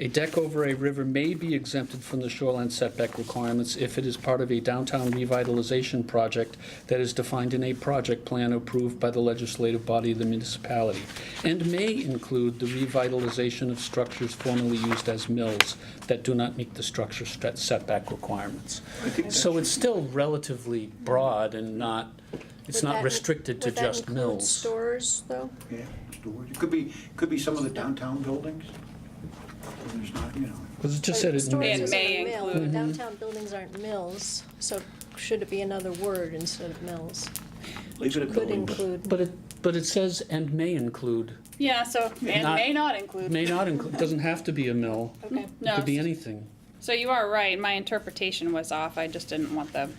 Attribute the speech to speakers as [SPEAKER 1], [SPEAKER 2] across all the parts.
[SPEAKER 1] A deck over a river may be exempted from the shoreline setback requirements if it is part of a downtown revitalization project that is defined in a project plan approved by the legislative body of the municipality, and may include the revitalization of structures formerly used as mills that do not meet the structure set- setback requirements. So it's still relatively broad and not, it's
[SPEAKER 2] Would that
[SPEAKER 1] not
[SPEAKER 2] in-
[SPEAKER 1] restricted to
[SPEAKER 2] would that
[SPEAKER 1] just
[SPEAKER 2] include
[SPEAKER 1] mills.
[SPEAKER 2] Stores, though?
[SPEAKER 3] Yeah, storage. It could be, could be some of the downtown buildings. And There's not, you know,
[SPEAKER 1] Because it just
[SPEAKER 2] But
[SPEAKER 1] said it
[SPEAKER 2] storage
[SPEAKER 1] may. Mm-hmm.
[SPEAKER 2] isn't a
[SPEAKER 4] may
[SPEAKER 2] mill.
[SPEAKER 4] include-
[SPEAKER 2] Downtown buildings aren't mills, so should it be another word instead of mills?
[SPEAKER 5] Leave it at
[SPEAKER 2] Could
[SPEAKER 5] buildings.
[SPEAKER 2] include,
[SPEAKER 1] But it, but it says, and may include,
[SPEAKER 4] Yeah, so, and
[SPEAKER 1] Not-
[SPEAKER 4] may not include.
[SPEAKER 1] may not include, doesn't have to be a mill.
[SPEAKER 4] Okay,
[SPEAKER 1] It
[SPEAKER 4] no.
[SPEAKER 1] could be anything.
[SPEAKER 4] So you are right, my interpretation was off, I just didn't want the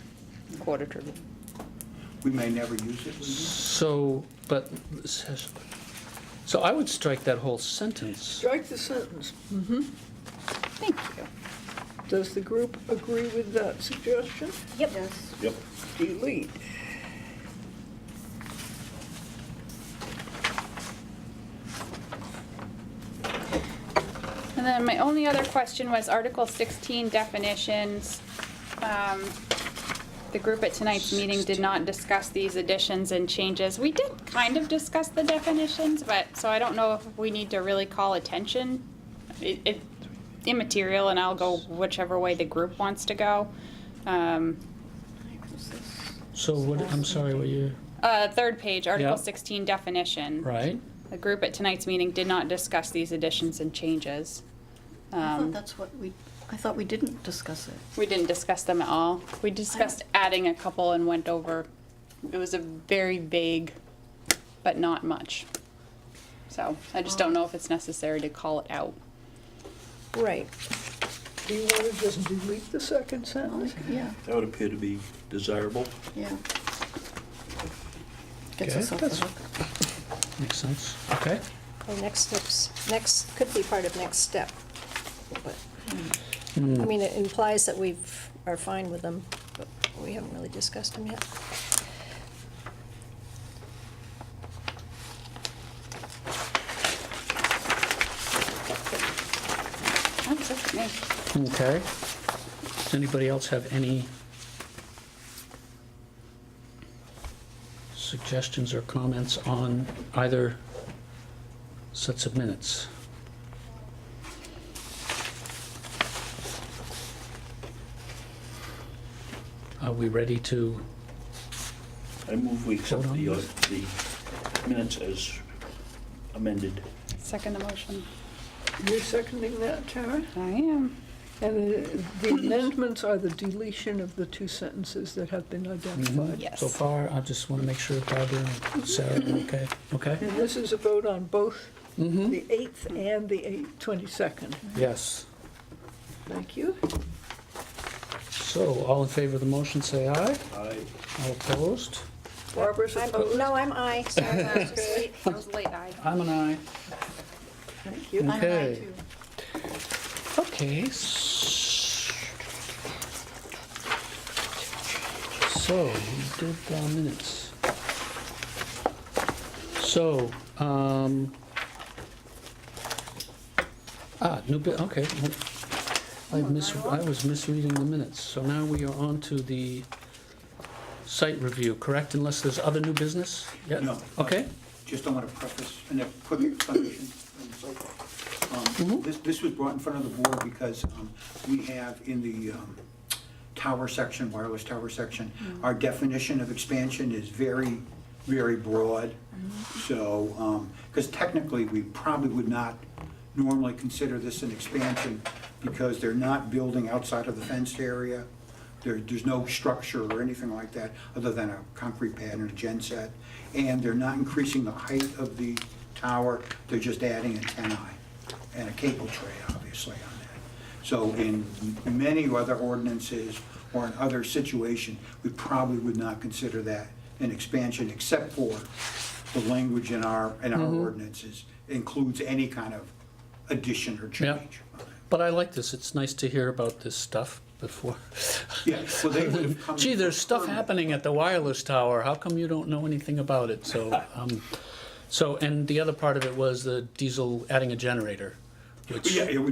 [SPEAKER 4] quarter to.
[SPEAKER 3] we may never use it.
[SPEAKER 1] So, but, it says- so I would strike that whole sentence.
[SPEAKER 6] Strike the sentence.
[SPEAKER 4] Thank you.
[SPEAKER 6] Does the group agree with that suggestion?
[SPEAKER 4] Yep.
[SPEAKER 5] Yep.
[SPEAKER 6] Delete.
[SPEAKER 4] And then my only other question was Article sixteen definitions. Um, The group at tonight's meeting did not discuss these additions and changes. We did kind of discuss the definitions, but, so I don't know if we need to really call attention. It, it immaterial, and I'll go whichever way the group wants to go. Um,
[SPEAKER 1] So what, I'm sorry, what you,
[SPEAKER 4] Uh, third page, Article
[SPEAKER 1] Yeah.
[SPEAKER 4] 16 definition.
[SPEAKER 1] right?
[SPEAKER 4] The group at tonight's meeting did not discuss these additions and changes.
[SPEAKER 7] I
[SPEAKER 4] Um,
[SPEAKER 7] thought that's what we, I thought we didn't discuss it.
[SPEAKER 4] We didn't discuss them at all. We discussed adding a couple and went over, it was a very vague, but not much. So I just
[SPEAKER 7] Um,
[SPEAKER 4] don't know if it's necessary to call it out.
[SPEAKER 2] right.
[SPEAKER 6] Do you want to just delete the second sentence?
[SPEAKER 7] Yeah,
[SPEAKER 5] That would appear to be desirable.
[SPEAKER 7] yeah. Gets us off the
[SPEAKER 1] that's-
[SPEAKER 7] hook.
[SPEAKER 1] Makes sense, okay?
[SPEAKER 2] Or next steps, next, could be part of next step. But, I
[SPEAKER 1] Hmm.
[SPEAKER 2] mean, it implies that we've, are fine with them, but we haven't really discussed them yet.
[SPEAKER 4] That's it for me.
[SPEAKER 1] Okay. Does anybody else have any suggestions or comments on either sets of minutes? Are we ready to,
[SPEAKER 5] I move we accept
[SPEAKER 1] Hold on.
[SPEAKER 5] the, uh, the minutes as amended.
[SPEAKER 4] Second motion.
[SPEAKER 6] You're seconding that, Tara?
[SPEAKER 4] I am.
[SPEAKER 6] And uh, the amendments are the deletion of the two sentences that have been identified.
[SPEAKER 4] Yes.
[SPEAKER 1] so far, I just want to make sure Barbara and Sarah are okay, okay?
[SPEAKER 6] And this is a vote on both the 8th and the 8th 22nd.
[SPEAKER 1] Yes.
[SPEAKER 6] Thank you.
[SPEAKER 1] So, all in favor of the motion, say aye.
[SPEAKER 5] I
[SPEAKER 1] All opposed?
[SPEAKER 6] Barbara's
[SPEAKER 2] I'm,
[SPEAKER 6] opposed.
[SPEAKER 2] no, I'm I, sorry, I was just late.
[SPEAKER 4] That was late, aye.
[SPEAKER 1] I'm an aye.
[SPEAKER 6] Thank you.
[SPEAKER 7] I'm an aye,
[SPEAKER 1] Okay.
[SPEAKER 7] too.
[SPEAKER 1] Okay. s- So, we did the minutes. So, um, ah, new bit, okay. I mis, I was misreading the minutes. So now we are on to the site review, correct? Unless there's other new business? Yeah.
[SPEAKER 3] No.
[SPEAKER 1] Okay,
[SPEAKER 3] Just don't want to preface, and a quick explanation and so forth. Um, This, this was brought in front of the board because um, we have in the um, tower section, wireless tower section, our definition of expansion is very, very broad. So, because technically, we probably would not normally consider this an expansion because they're not building outside of the fenced area. There, there's no structure or anything like that, other than a concrete pad and a gen set. And they're not increasing the height of the tower, they're just adding an antennae and a cable tray, obviously, on that. So in many other ordinances or in other situation, we probably would not consider that an expansion, except for the language in our, in our
[SPEAKER 1] Mm-hmm.
[SPEAKER 3] ordinances includes any kind of addition or
[SPEAKER 1] Yeah.
[SPEAKER 3] change.
[SPEAKER 1] but I like this. It's nice to hear about this stuff before.
[SPEAKER 3] Yeah, so they would have come.
[SPEAKER 1] Gee, there's stuff
[SPEAKER 3] permanent.
[SPEAKER 1] happening at the wireless tower. How come you don't know anything about it? So, um, so, and the other part of it was the diesel adding a generator, which.
[SPEAKER 3] Yeah, it would